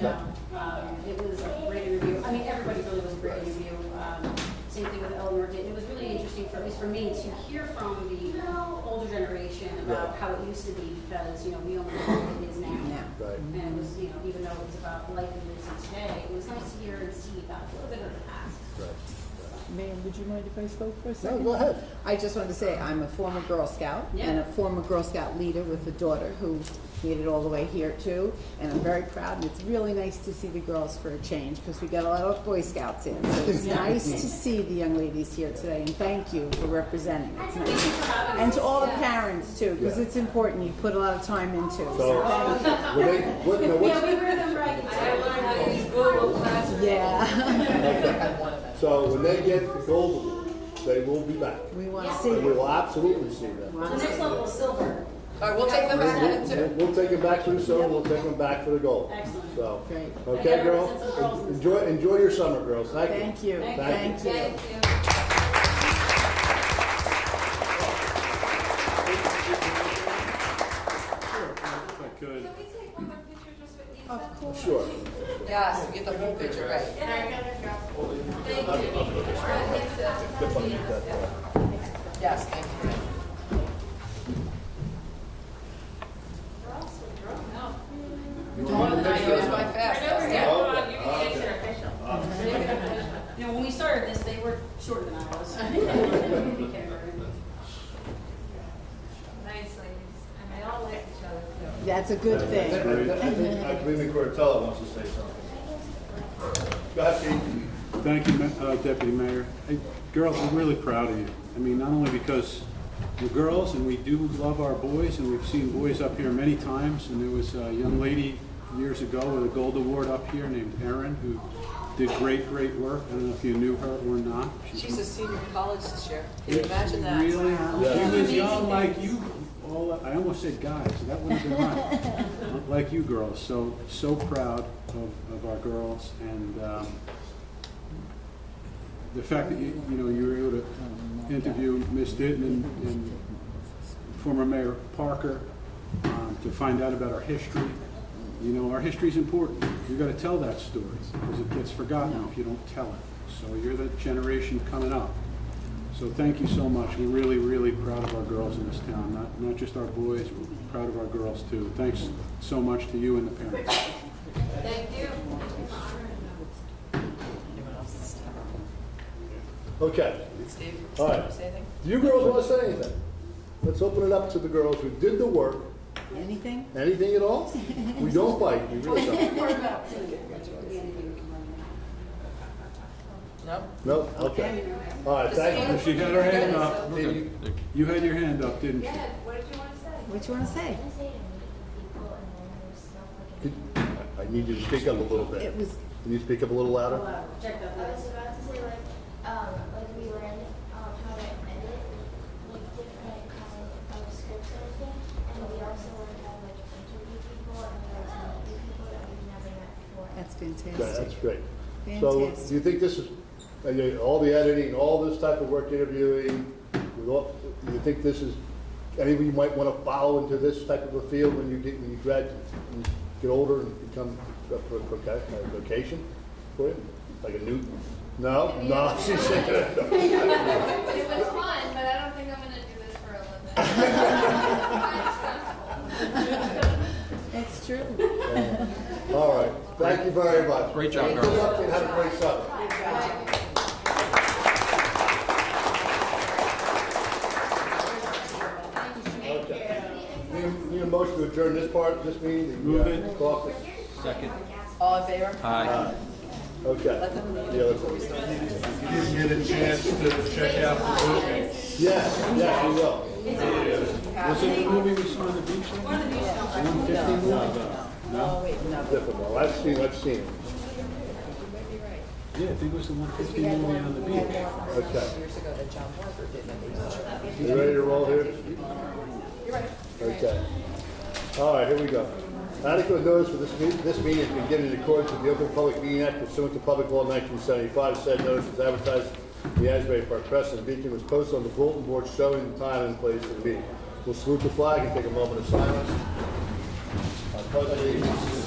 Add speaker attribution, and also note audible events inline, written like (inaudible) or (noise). Speaker 1: No, um, it was a great interview. I mean, everybody really was a great interview. Um, Same thing with Eleanor did. It was really interesting for, at least for me, to hear from the older generation about how it used to be because, you know, we only know what it is now.
Speaker 2: Right.
Speaker 1: And it was, you know, even though it was about life and living today, it was nice to hear and see about a little bit of the past.
Speaker 2: Right.
Speaker 3: Ma'am, would you mind if I spoke for a
Speaker 2: No,
Speaker 3: second?
Speaker 2: go ahead.
Speaker 3: I just wanted to say, I'm a former Girl Scout and a
Speaker 1: Yeah.
Speaker 3: former Girl Scout leader with a daughter who made it all the way here too. And I'm very proud and it's really nice to see the girls for a change because we got a lot of Boy Scouts in. So it's nice to see the young ladies here today and thank you for representing. It's nice. And to all the parents too, because
Speaker 2: Yeah.
Speaker 3: it's important. You put a lot of time into it.
Speaker 2: So, were they, what, now
Speaker 1: Yeah,
Speaker 2: what's,
Speaker 1: we were them right.
Speaker 4: I learned how to use Google Classroom.
Speaker 3: Yeah, (laughs)
Speaker 2: so when they get the gold, they will be back.
Speaker 3: we want to
Speaker 1: Yeah.
Speaker 3: see
Speaker 2: We
Speaker 3: you.
Speaker 2: will absolutely see them.
Speaker 1: The next level was silver.
Speaker 4: All right, we'll take them back then
Speaker 2: We'll,
Speaker 4: too.
Speaker 2: we'll take them back through summer, we'll take them back for the gold.
Speaker 1: Excellent.
Speaker 2: So,
Speaker 3: Great.
Speaker 2: okay, girl?
Speaker 1: Since the girls-
Speaker 2: Enjoy, enjoy your summer, girls. Thank you.
Speaker 3: Thank you.
Speaker 2: Thank
Speaker 3: Thank you.
Speaker 4: Thank you.
Speaker 5: If I could,
Speaker 6: Can we take one more picture just with Lisa? Of course.
Speaker 2: Sure.
Speaker 4: Yes, we get the whole picture right. Yes, thank you. More than I use my fast.
Speaker 1: You know, when we started this, they were shorter than I was. (laughs) Thank
Speaker 6: Nice ladies, and they all like each other too.
Speaker 3: That's a good
Speaker 7: I
Speaker 3: thing.
Speaker 7: think- I think- I believe in Cortella wants to say something. Go ahead, Pete.
Speaker 5: thank you, Ma- uh, Deputy Mayor. Hey, Girls, I'm really proud of you. I mean, not only because you're girls, and we do love our boys, and we've seen boys up here many times, and there was a young lady years ago with a gold award up here named Erin, who did great, great work. I don't know if you knew her or not.
Speaker 4: She's a senior in college this year. Can you imagine that?
Speaker 5: Really?
Speaker 2: Yeah.
Speaker 5: She was young like you, all, I almost said guys, so that wouldn't have been right. Like you girls, so, so proud of, of our girls and, um, the fact that you, you know, you were able to um, interview Ms. Ditton and, and former Mayor Parker, um, to find out about our history. You know, our history's important. You gotta tell that story, because it gets forgotten if you don't tell it. So you're the generation coming up. So thank you so much. We're really, really proud of our girls in this town, not, not just our boys, we're proud of our girls too. Thanks so much to you and the parents.
Speaker 6: Thank you.
Speaker 2: Okay.
Speaker 4: Steve,
Speaker 2: All
Speaker 4: you
Speaker 2: right.
Speaker 4: want to say anything?
Speaker 2: Do you girls want to say anything? Let's open it up to the girls who did the work.
Speaker 3: Anything?
Speaker 2: Anything at all? We don't bite, we really don't.
Speaker 1: you.
Speaker 4: No?
Speaker 2: No? Okay. All right, thank
Speaker 5: She had her hand up.
Speaker 2: you. Did you-
Speaker 5: You had your hand up, didn't you?
Speaker 6: Yeah, what did you want to say?
Speaker 3: What you want to say?
Speaker 8: I say to meet people and then there's stuff like.
Speaker 2: did- I need you to speak up a little bit.
Speaker 3: It was
Speaker 2: Can you speak up a little louder?
Speaker 1: Check that
Speaker 8: I
Speaker 1: list.
Speaker 8: was about to say like, um, like we learned, um, how to edit, like different kind of scripts and everything. And we also learned how to like interview people and we learned how to meet people that we've never met before.
Speaker 3: That's
Speaker 2: Okay,
Speaker 3: fantastic.
Speaker 2: That's great. So do you think this is, and you- all the editing, all this type of work, interviewing, with all- do you think this is, anything you might want to follow into this type of a field when you get, when you graduate, when you get older and become a pro- proca- a vocation for you? Like a new, no, no, (laughs) she's shaking her head.
Speaker 6: It was fun, but I don't think I'm gonna do this for a (laughs) living.
Speaker 3: That's true.
Speaker 2: All right, thank you very much.
Speaker 9: Great job,
Speaker 2: Good
Speaker 9: girls.
Speaker 2: luck and have a great summer. Okay. Need- Need a motion to adjourn this part, this meeting?
Speaker 5: Move it.
Speaker 2: Caucus.
Speaker 9: Second.
Speaker 4: All in favor?
Speaker 9: Aye.
Speaker 2: Okay. The other part.
Speaker 7: You didn't get a chance to check out the movie.
Speaker 2: Yes, yes, we will.
Speaker 5: Was it the movie we saw on the beach? One of
Speaker 3: Oh, wait, no.
Speaker 2: Difficult. I've seen, I've seen. it.
Speaker 5: Yeah, I think it was the one fifty movie on the beach.
Speaker 2: Okay.
Speaker 4: Years ago that John Parker did that.
Speaker 2: You ready to roll here? Okay. All right, here we go. Adequate notice for this meeting, this meeting has been given in accordance with the Open Public Meeting Act pursuant to Public Law 1975. Said notice was advertised in the Asbury Park Press and Beacon was posted on the bulletin board showing the time and place of the meeting. We'll salute the flag and take a moment of silence. I pledge allegiance to the